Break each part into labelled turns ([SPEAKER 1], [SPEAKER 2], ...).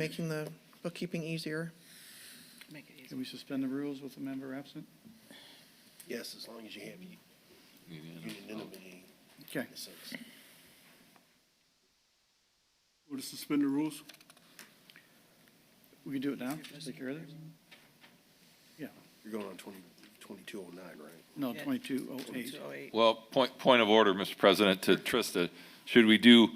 [SPEAKER 1] making the bookkeeping easier.
[SPEAKER 2] Make it easy.
[SPEAKER 3] Can we suspend the rules with a member absent?
[SPEAKER 4] Yes, as long as you have unanimity
[SPEAKER 3] Okay.
[SPEAKER 4] in a sense.
[SPEAKER 5] Or to suspend the rules?
[SPEAKER 3] We can do it now, just take care of it. Yeah,
[SPEAKER 4] You're going on 20 2209, right?
[SPEAKER 3] no,
[SPEAKER 2] Yeah.
[SPEAKER 3] twenty-two oh eight.
[SPEAKER 2] 208.
[SPEAKER 6] Well, point, point of order, Mr. President, to Trista. Should we do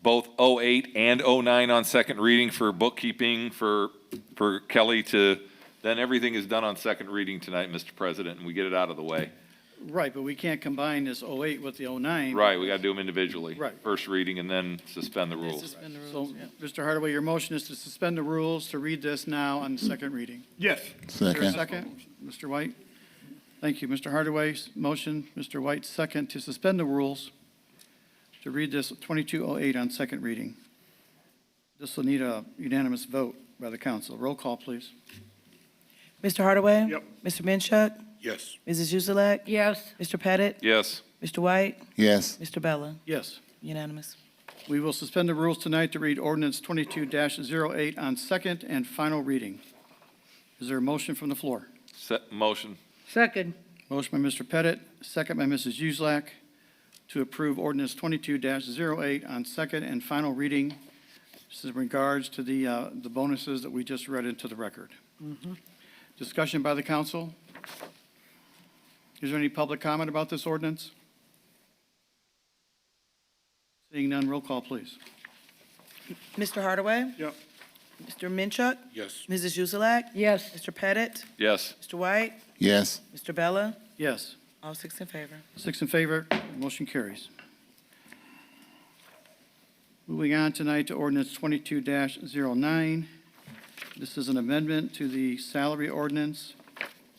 [SPEAKER 6] both 08 and 09 on second reading for bookkeeping, for, for Kelly to, then everything is done on second reading tonight, Mr. President, and we get it out of the way.
[SPEAKER 3] Right, but we can't combine this oh eight with the oh nine.
[SPEAKER 6] Right, we got to do them individually.
[SPEAKER 3] Right.
[SPEAKER 6] First reading and then suspend the rules.
[SPEAKER 2] Suspend the
[SPEAKER 3] So,
[SPEAKER 2] rules, yeah.
[SPEAKER 3] Mr. Hardaway, your motion is to suspend the rules to read this now on second reading.
[SPEAKER 5] Yes.
[SPEAKER 3] Is there a
[SPEAKER 7] Second.
[SPEAKER 3] second? Mr. White? Thank you. Mr. Hardaway's motion, Mr. White's second to suspend the rules to read this 2208 on second reading. This will need a unanimous vote by the council. Roll call, please.
[SPEAKER 2] Mr. Hardaway?
[SPEAKER 5] Yep.
[SPEAKER 2] Mr. Minchuk?
[SPEAKER 4] Yes.
[SPEAKER 2] Mrs. Uzelak?
[SPEAKER 8] Yes.
[SPEAKER 2] Mr. Pettit?
[SPEAKER 6] Yes,
[SPEAKER 2] Mr. White?
[SPEAKER 7] Yes,
[SPEAKER 2] Mr. Bella?
[SPEAKER 3] Yes.
[SPEAKER 2] Unanimous.
[SPEAKER 3] We will suspend the rules tonight to read ordinance 22-08 on second and final reading. Is there a motion from the floor?
[SPEAKER 6] set, motion.
[SPEAKER 8] Second.
[SPEAKER 3] Motion by Mr. Pettit, second by Mrs. Uselak, to approve ordinance 22-08 on second and final reading. This is in regards to the, uh, the bonuses that we just read into the record. Discussion by the council? Is there any public comment about this ordinance? Seeing none, roll call, please.
[SPEAKER 2] Mr. Hardaway?
[SPEAKER 5] Yep.
[SPEAKER 2] Mr. Minchuk?
[SPEAKER 4] Yes.
[SPEAKER 2] Mrs. Uzelak?
[SPEAKER 8] Yes.
[SPEAKER 2] Mr. Pettit?
[SPEAKER 6] Yes,
[SPEAKER 2] Mr. White?
[SPEAKER 7] yes,
[SPEAKER 2] Mr. Bella?
[SPEAKER 3] Yes,
[SPEAKER 2] All six in favor.
[SPEAKER 3] six in favor, motion carries. Moving on tonight to ordinance 22-09. This is an amendment to the salary ordinance.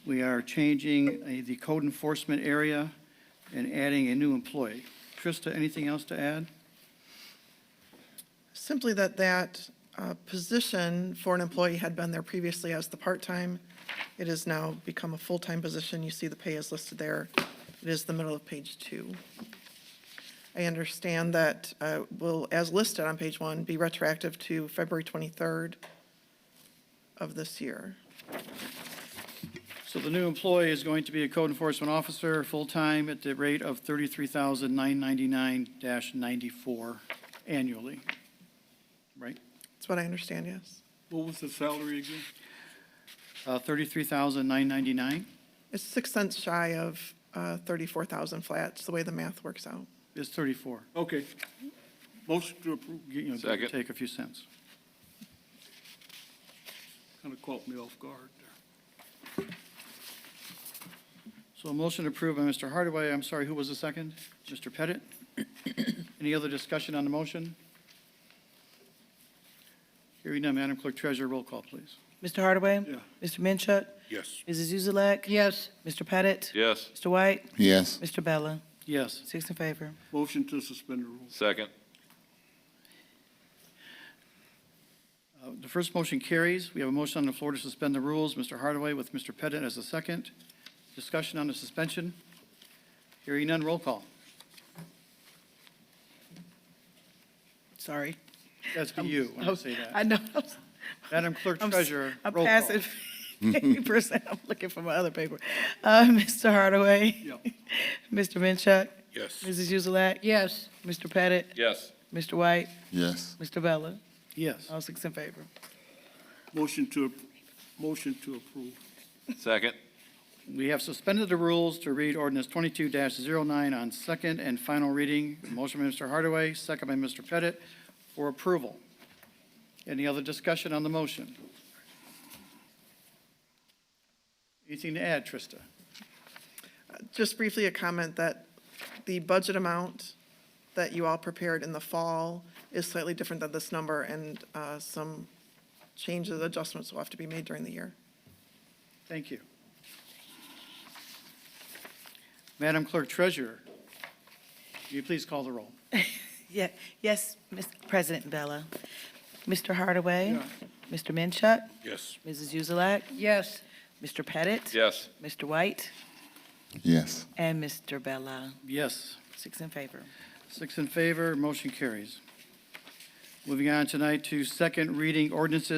[SPEAKER 3] We are changing uh, the code enforcement area and adding a new employee. Trista, anything else to add?
[SPEAKER 1] Simply that that uh, position for an employee had been there previously as the part-time. It has now become a full-time position. You see the pay is listed there. It is the middle of page two. I understand that uh, will, as listed on page one, be retroactive to February 23rd of this year.
[SPEAKER 3] So the new employee is going to be a code enforcement officer, full-time, at the rate of $33,999-94 annually. Right?
[SPEAKER 1] That's what I understand, yes.
[SPEAKER 5] What was the salary again?
[SPEAKER 3] Uh, 33,999
[SPEAKER 1] It's six cents shy of uh, 34,000 flats, the way the math works out.
[SPEAKER 3] is 34.
[SPEAKER 5] Okay. Motion to approve.
[SPEAKER 3] You know, give or
[SPEAKER 6] Second.
[SPEAKER 3] Take a few cents.
[SPEAKER 5] Kind of caught me off guard there.
[SPEAKER 3] So a motion approved by Mr. Hardaway. I'm sorry, who was the second? Mr. Pettit? Any other discussion on the motion? Hearing none, Madam Clerk Treasurer, roll call, please.
[SPEAKER 2] Mr. Hardaway?
[SPEAKER 5] Yeah.
[SPEAKER 2] Mr. Minchuk?
[SPEAKER 4] Yes.
[SPEAKER 2] Mrs. Uzelak?
[SPEAKER 8] Yes.
[SPEAKER 2] Mr. Pettit?
[SPEAKER 6] yes,
[SPEAKER 2] Mr. White?
[SPEAKER 7] yes,
[SPEAKER 2] Mr. Bella?
[SPEAKER 3] Yes.
[SPEAKER 2] Six in favor.
[SPEAKER 5] Motion to suspend the rules.
[SPEAKER 6] second.
[SPEAKER 3] Uh, The first motion carries. We have a motion on the floor to suspend the rules. Mr. Hardaway with Mr. Pettit as the second. Discussion on the suspension. Hearing none, roll call.
[SPEAKER 2] Sorry.
[SPEAKER 3] That's for you, when I say that.
[SPEAKER 2] I know.
[SPEAKER 3] Madam Clerk
[SPEAKER 2] I'm s-
[SPEAKER 3] Treasurer,
[SPEAKER 2] I'm
[SPEAKER 3] roll call.
[SPEAKER 2] passing papers. and I'm looking for my other paper. Uh, Mr. Hardaway.
[SPEAKER 5] Yep.
[SPEAKER 2] Mr. Minchuk.
[SPEAKER 4] Yes.
[SPEAKER 2] Mrs. Uzelak.
[SPEAKER 8] Yes.
[SPEAKER 2] Mr. Pettit.
[SPEAKER 6] Yes,
[SPEAKER 2] Mr. White.
[SPEAKER 7] yes,
[SPEAKER 2] Mr. Bella.
[SPEAKER 3] Yes.
[SPEAKER 2] All six in favor.
[SPEAKER 5] Motion to, motion to approve.
[SPEAKER 6] second.
[SPEAKER 3] We have suspended the rules to read ordinance 22-09 on second and final reading. Motion by Mr. Hardaway, second by Mr. Pettit, for approval. Any other discussion on the motion? Anything to add, Trista?
[SPEAKER 1] Just briefly, a comment that the budget amount that you all prepared in the fall is slightly different than this number, and uh, some changes, adjustments will have to be made during the year.
[SPEAKER 3] Thank you. Madam Clerk Treasurer, will you please call the roll?
[SPEAKER 2] Yeah, yes, Ms. President Bella. Mr. Hardaway.
[SPEAKER 5] Yeah.
[SPEAKER 2] Mr. Minchuk.
[SPEAKER 4] Yes.
[SPEAKER 2] Mrs. Uzelak.
[SPEAKER 8] Yes.
[SPEAKER 2] Mr. Pettit.
[SPEAKER 6] Yes,
[SPEAKER 2] Mr. White.
[SPEAKER 7] yes.
[SPEAKER 2] And Mr. Bella.
[SPEAKER 3] Yes.
[SPEAKER 2] Six in favor.
[SPEAKER 3] Six in favor, motion carries. Moving on tonight to second reading ordinances